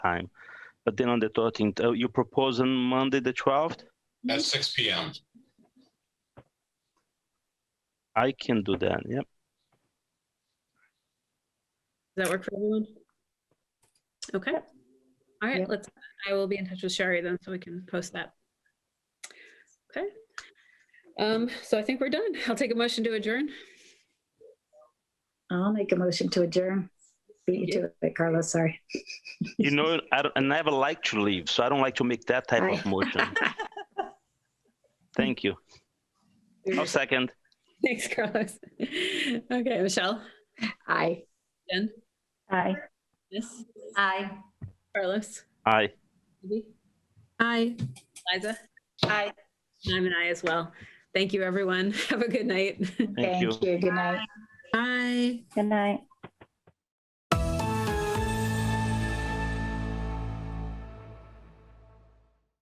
time. But then on the 13th, uh, you propose on Monday, the 12th? At six P M. I can do that, yep. Does that work for everyone? Okay. All right, Yep. let's, I will be in touch with Sherry then, so we can post that. Okay. Um, so I think we're done. I'll take a motion to adjourn. I'll make a motion to adjourn. Beat you to it, Carlos, sorry. You know, I, don't- I never like to leave, so I don't like to make that type of Aye. motion. Thank you. I'll second. Thanks, Carlos. Okay, Michelle, Aye. Jen, Aye. yes, Aye. Carlos, Aye. Libby, Aye. Liza, Aye. and I'm an I as well. Thank you, everyone. Have a good night. Thank you. Thank you. Good night. Aye. Good night.